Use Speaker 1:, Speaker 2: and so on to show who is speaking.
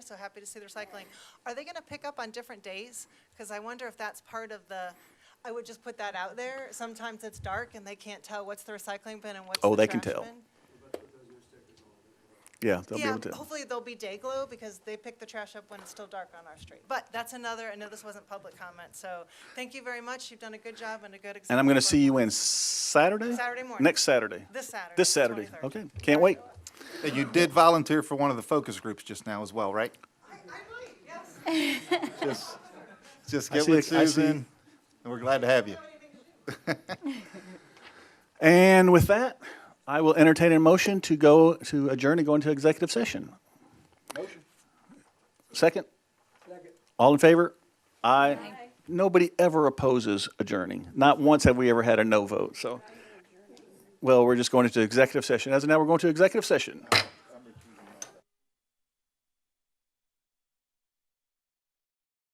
Speaker 1: so happy to see the recycling. Are they gonna pick up on different days? Because I wonder if that's part of the, I would just put that out there. Sometimes it's dark and they can't tell what's the recycling bin and what's the
Speaker 2: Oh, they can
Speaker 1: trash
Speaker 2: tell.
Speaker 1: bin.
Speaker 2: Yeah, they'll be
Speaker 1: Yeah,
Speaker 2: able to.
Speaker 1: hopefully there'll be day glow because they pick the trash up when it's still dark on our street. But that's another, I know this wasn't public comment, so thank you very much. You've done a good job and a good example.
Speaker 2: And I'm going to
Speaker 1: of-
Speaker 2: see you in Saturday?
Speaker 1: Saturday morning.
Speaker 2: Next Saturday?
Speaker 1: This Saturday,
Speaker 2: This
Speaker 1: the
Speaker 2: Saturday,
Speaker 1: 23rd.
Speaker 2: okay. Can't wait.
Speaker 3: Hey, You did volunteer for one of the focus groups just now as well, right?
Speaker 1: I, I might, yes.
Speaker 3: Just, just
Speaker 2: I
Speaker 3: get
Speaker 2: see
Speaker 3: with
Speaker 2: a- I see-
Speaker 3: Susan, and we're glad to have you.
Speaker 2: And with that, I will entertain a motion to go, to adjourn and go into executive session. Motion. Second? Second. All in favor? Aye. Nobody ever opposes adjourning. Not once have we ever had a no vote, so. Well, we're just going into executive session. As of now, we're going to executive session.